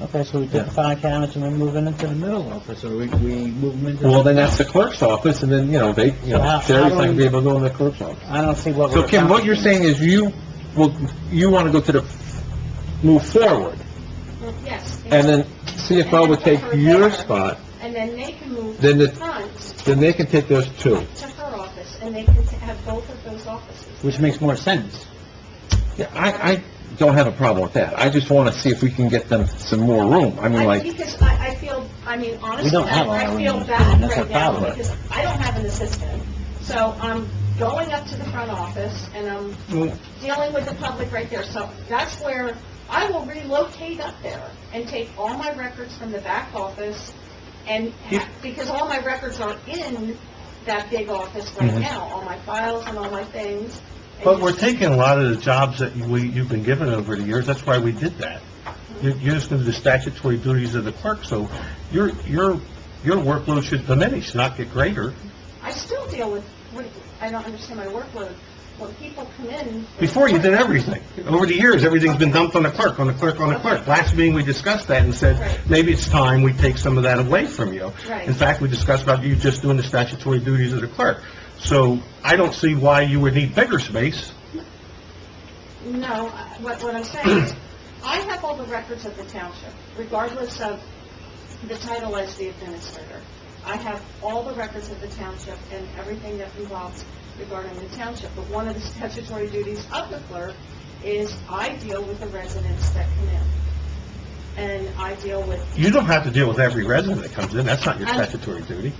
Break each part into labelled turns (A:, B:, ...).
A: Okay, so we took the five cabinets and we move them into the middle office, or we, we move them into...
B: Well, then that's the clerk's office, and then, you know, they, you know,
A: Well,
B: Sherry's not
A: I
B: gonna
A: don't-
B: be able to go in the clerk's office.
A: I don't see what we're...
B: So Kim, what you're saying is you, will you wanna go to the, move forward,
C: Yes.
B: and then CFO would take your spot,
C: And then they can move
B: Then
C: to
B: the-
C: the front,
B: then they can take those two.
C: to her office, and they can have both of those offices.
A: Which makes more sense.
B: Yeah, I, I don't have a problem with that. I just wanna see if we can get them some more room. I mean,
C: I-
B: like,
C: Because I, I feel, I mean, honestly,
A: don't have
C: I
A: all
C: I
A: our
C: feel
A: rooms,
C: bad
A: that's our
C: right now,
A: problem.
C: because I don't have an assistant. So I'm going up to the front office, and I'm dealing with the public right there. So that's where I will relocate up there and take all my records from the back office, and, ha- because all my records are in that big office right
B: Mhm.
C: now, all my files and all my things. and
D: But we're
C: just-
D: taking a lot of the jobs that we, you've been given over the years, that's why we did that. You're, you're just gonna do the statutory duties of the clerk, so your, your, your workload should diminish, not get greater.
C: I still deal with, what- I don't understand my workload, when people come in...
D: Before, you did everything. Over the years, everything's been dumped on the clerk, on the clerk, on the clerk. Last meeting, we discussed that and said,
C: Right.
D: maybe it's time we take some of that away from you.
C: Right.
D: In fact, we discussed about you just doing the statutory duties of the clerk. So I don't see why you would need bigger space.
C: No, I- what, what I'm saying is, I have all the records of the township, regardless of the title as the administrator. I have all the records of the township and everything that involves regarding the township. But one of the statutory duties of the clerk is I deal with the residents that come in. And I deal with
D: You don't have to deal with every resident that comes in, that's not your
C: I'm-
D: statutory duty.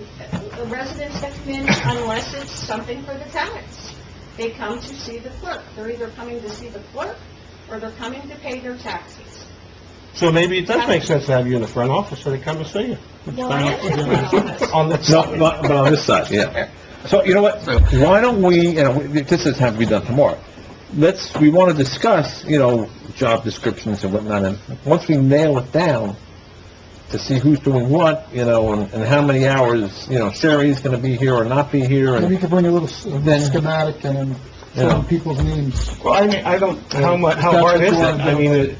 C: the residents that come in unless it's something for the tax. They come to see the clerk. They're either coming to see the clerk or they're coming to pay their taxes.
D: So maybe it does make sense to have you in the front office, so they come and see you.
C: Well, I am in the front office.
D: On the
B: no,
D: side.
B: but but on this side, yeah. So, you know what, why don't we, you know, we- this doesn't have to be done tomorrow. Let's, we wanna discuss, you know, job descriptions and whatnot, and once we nail it down, to see who's doing what, you know, and, and how many hours, you know, Sherry's gonna be here or not be here,
E: Maybe you
B: and,
E: could bring a little s-
B: Then-
E: schematic and then
B: you know.
E: show people's names.
D: Well, I mean, I don't, how mu, how hard is it? I mean, it,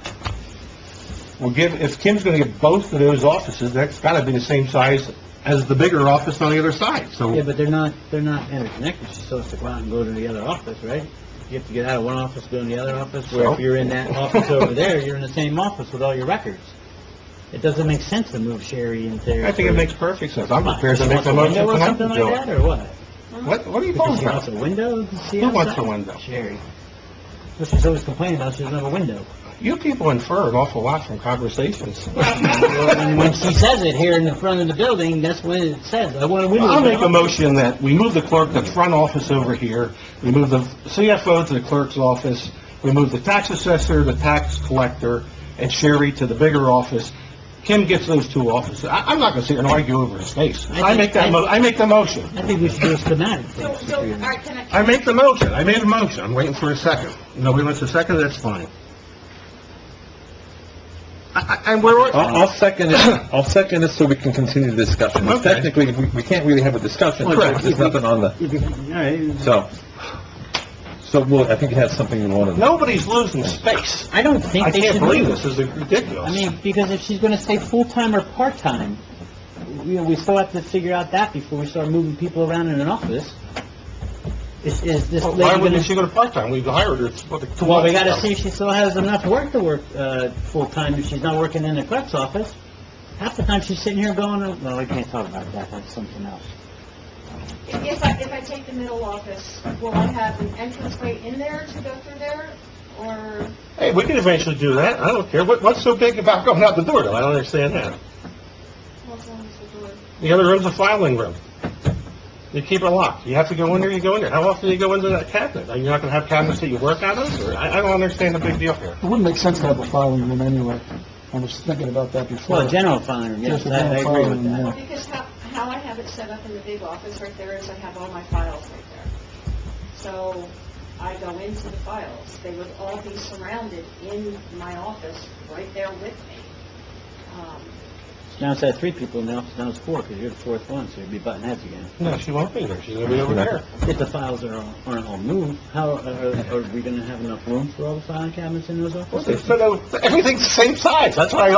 D: well, give, if Kim's gonna get both of those offices, that's gotta be the same size as the bigger office on the other side,
A: Yeah,
D: so.
A: but they're not, they're not interconnected, she still has to go out and go to the other office, right? You have to get out of one office, go to the other office, where if
D: So?
A: you're in that office over there, you're in the same office with all your records. It doesn't make sense to move Sherry into there.
D: I think it
A: for-
D: makes perfect sense. I'm prepared to make
A: She
D: the
A: wants a
D: motion
A: window or
D: tonight,
A: something like
D: Joe.
A: that, or what?
D: What, what are you
A: Because
D: talking
A: she wants
D: about?
A: a window, to see
D: Who wants
A: outside?
D: a window?
A: Sherry. That's what she's always complaining about, she doesn't have a window.
D: You people infer an awful lot from conversations.
A: And when she says it here in the front of the building, that's what it says, I want a window.
D: I'll make a motion that we move the clerk to the front office over here, we move the CFO to the clerk's office, we move the tax assessor, the tax collector, and Sherry to the bigger office. Kim gets those two offices. I, I'm not gonna sit here and argue over his face. I make that, mo- I make the motion.
A: I think we should do a schematic.
C: So, so, all right, can I...
D: I make the motion. I made a motion. I'm waiting for a second. Nobody wants a second, that's fine. I, I, and we're,
B: I'll, I'll second it, I'll second this so we can continue the discussion.
D: Okay.
B: Technically, we, we can't really have a discussion,
D: Correct.
B: there's nothing on the,
A: If you- All right,
B: so. So, well, I think you have something you wanted.
D: nobody's losing space.
A: I don't think
D: I
A: they
D: can't
A: should
D: believe
A: leave.
D: this. This is ridiculous.
A: I mean, because if she's gonna stay full-time or part-time, you know, we still have to figure out that before we start moving people around in an office. Is, is this
D: Well,
A: lady
D: Why
A: gonna...
D: wouldn't she go to part-time? We've hired her. for the- two
A: Well, we
D: months
A: gotta
D: ago.
A: see if she still has enough work to work, uh, full-time, if she's not working in the clerk's office. Half the time she's sitting here going, oh, well, we can't talk about that, that's something else.
C: If I, if I take the middle office, will I have an entranceway in there to go through there, or,
D: Hey, we can eventually do that. I don't care. What, what's so big about going out the door, though? I don't understand that.
C: what's on the door?
D: The other room's a filing room. You keep it locked. You have to go in there, you go in there. How often do you go into that cabinet? Are you not gonna have cabinets that you work out of, or? I, I don't understand the big deal here.
E: It wouldn't make sense to have a filing room anyway. I was thinking about that before.
A: Well, general fund, room, yes,
E: Just a
A: I I
E: general
A: agree
E: fund
A: with
E: room,
A: that.
E: yeah.
C: Because how, how I have it set up in the big office right there is I have all my files right there. So I go into the files. They would all be surrounded in my office, right there with me. Um,
A: Now it's had three people in the office, now it's four, because you're the fourth one, so you'd be button heads again.
D: No, she won't be there. She's gonna be over there.
A: If the files are, all- aren't all moved, how, uh, are, are we gonna have enough room for all the file cabinets in those offices?
D: Everything's the same size. That's why I